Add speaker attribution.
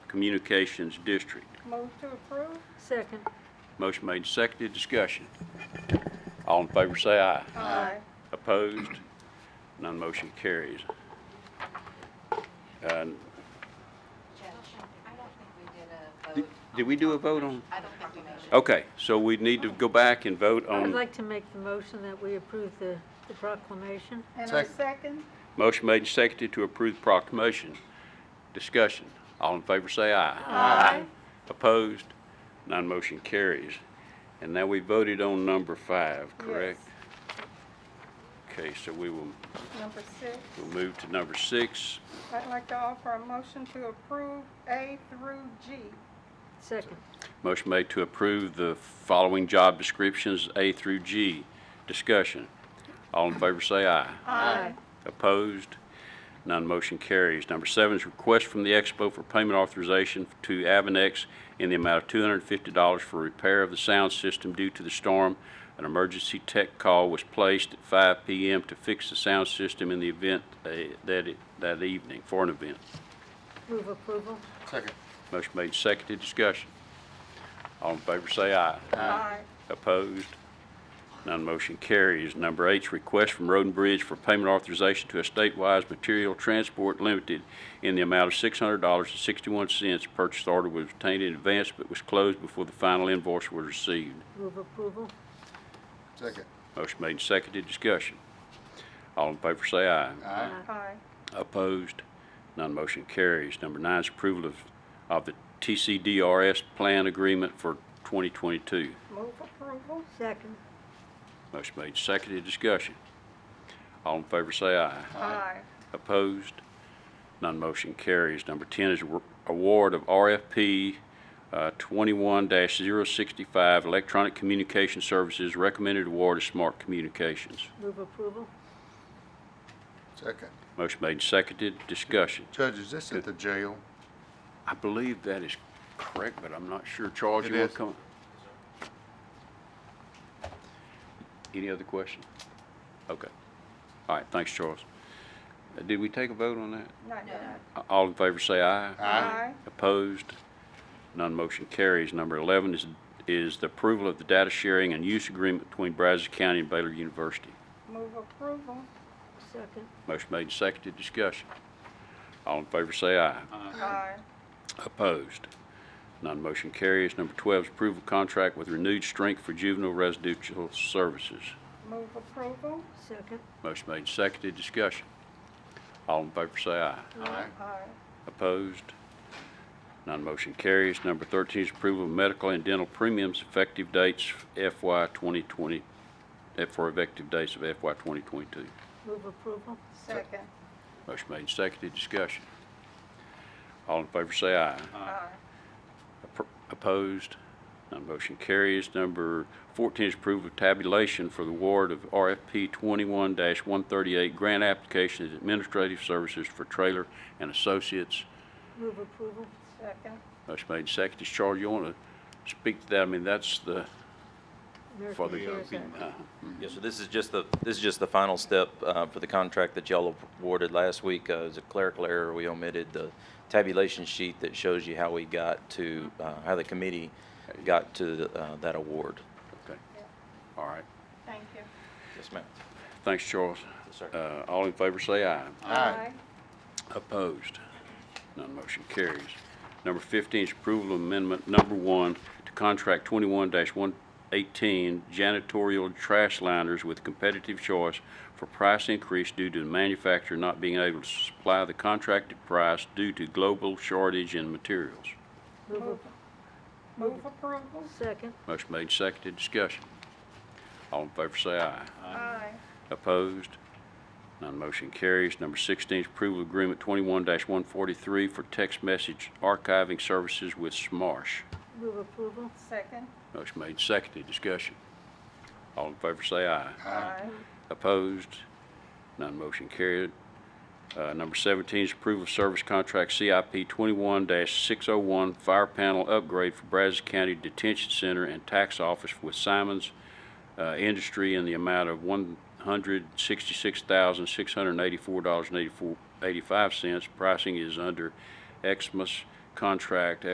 Speaker 1: Communications District.
Speaker 2: Move to approve?
Speaker 3: Second.
Speaker 1: Motion made, and seconded, discussion. All in favor say aye.
Speaker 2: Aye.
Speaker 1: Opposed? None motion carries. Uh,
Speaker 4: I don't think we did a
Speaker 1: Did
Speaker 4: vote.
Speaker 1: did we do a vote on?
Speaker 4: I don't think we mentioned.
Speaker 1: Okay, so we need to go back and vote
Speaker 3: I'd
Speaker 1: on,
Speaker 3: like to make the motion that we approve the the proclamation.
Speaker 2: And I
Speaker 5: Second.
Speaker 2: second?
Speaker 1: motion made, and seconded to approve proclamation. Discussion. All in favor say aye.
Speaker 2: Aye.
Speaker 1: Opposed? None motion carries. And now we voted on number five, correct? Okay, so we will,
Speaker 2: Number six,
Speaker 1: we'll move to number six.
Speaker 2: I'd like to offer a motion to approve A through G.
Speaker 3: Second.
Speaker 1: Motion made to approve the following job descriptions, A through G. Discussion. All in favor say aye.
Speaker 3: Aye.
Speaker 1: Opposed? None motion carries. Number seven is request from the Expo for payment authorization to Avanex in the amount of $250 for repair of the sound system due to the storm. An emergency tech call was placed at 5 PM to fix the sound system in the event uh, that, it- that evening, for an event.
Speaker 3: Move approval.
Speaker 5: Second.
Speaker 1: Motion made, seconded, discussion. All in favor say aye.
Speaker 2: Aye.
Speaker 1: Opposed? None motion carries. Number eight, request from Roden Bridge for payment authorization to Estatewise Material Transport Limited in the amount of $600.61. Purchase order was obtained in advance but was closed before the final invoice was received.
Speaker 3: Move approval.
Speaker 5: Second.
Speaker 1: Motion made and seconded. Discussion. All in favor say aye.
Speaker 5: Aye.
Speaker 2: Aye.
Speaker 1: Opposed? None motion carries. Number nine is approval of, of the TCDRS Plan Agreement for 2022.
Speaker 2: Move approval?
Speaker 3: Second.
Speaker 1: Motion made, seconded, discussion. All in favor say aye.
Speaker 2: Aye.
Speaker 1: Opposed? None motion carries. Number 10 is awar- award of RFP uh, 21-065 Electronic Communication Services. Recommended award is Smart Communications.
Speaker 3: Move approval.
Speaker 5: Second.
Speaker 1: Motion made, seconded, discussion.
Speaker 5: Judge, is this at the jail?
Speaker 1: I believe that is correct, but I'm not sure. Charles,
Speaker 5: It
Speaker 1: you want
Speaker 5: is.
Speaker 1: to come? Any other question? Okay. All right, thanks, Charles. Uh, Did we take a vote on that?
Speaker 2: Not yet.
Speaker 1: A- All in favor say aye.
Speaker 2: Aye.
Speaker 1: Opposed? None motion carries. Number 11 is, is the approval of the data sharing and use agreement between Brazos County and Baylor University.
Speaker 2: Move approval?
Speaker 3: Second.
Speaker 1: Motion made and seconded, discussion. All in favor say aye.
Speaker 2: Aye.
Speaker 1: Opposed? None motion carries. Number 12 is approval of contract with renewed strength for juvenile residential services.
Speaker 2: Move approval?
Speaker 3: Second.
Speaker 1: Motion made and seconded, discussion. All in favor say aye.
Speaker 5: Aye.
Speaker 2: Aye.
Speaker 1: Opposed? None motion carries. Number 13 is approval of medical and dental premiums effective dates FY 2020, eh, for effective dates of FY 2022.
Speaker 3: Move approval.
Speaker 2: Second?
Speaker 1: Motion made, and seconded, discussion. All in favor say aye.
Speaker 2: Aye.
Speaker 1: Appro- Opposed? None motion carries. Number 14 is approval of tabulation for the award of RFP 21-138 grant application as administrative services for Trailer and Associates
Speaker 3: Move approval.
Speaker 2: Second?
Speaker 1: Motion made, and seconded. Charles, you want to speak to that? I mean, that's the, for
Speaker 3: American
Speaker 1: the,
Speaker 3: Cares Act.
Speaker 1: uh,
Speaker 6: Yeah, so this is just the, this is just the final step uh, for the contract that y'all awarded last week. Uh, It was a clerical error. We omitted the tabulation sheet that shows you how we got to, uh, how the committee got to uh, that award.
Speaker 1: okay. All right.
Speaker 2: Thank you.
Speaker 6: Yes, ma'am.
Speaker 1: Thanks, Charles.
Speaker 6: Yes, sir.
Speaker 1: Uh, All in favor, say aye.
Speaker 2: Aye.
Speaker 1: Opposed? None motion carries. Number 15 is approval of amendment number one to contract 21-118 janitorial trash liners with competitive choice for price increase due to the manufacturer not being able to supply the contracted price due to global shortage in materials.
Speaker 3: Move
Speaker 2: Move approval?
Speaker 3: a- Second.
Speaker 1: Motion made, seconded, discussion. All in favor say aye.
Speaker 2: Aye.
Speaker 1: Opposed? None motion carries. Number 16 is approval of agreement 21-143 for text message archiving services with Smarsh.
Speaker 3: Move approval.
Speaker 2: Second?
Speaker 1: Motion made, seconded, discussion. All in favor say aye.
Speaker 2: Aye.
Speaker 1: Opposed? None motion carried. Uh, Number 17 is approval of service contract CIP 21-601 fire panel upgrade for Brazos County Detention Center and Tax Office with Simons uh, Industry in the amount of $166,684.85. Pricing is under Exmus contract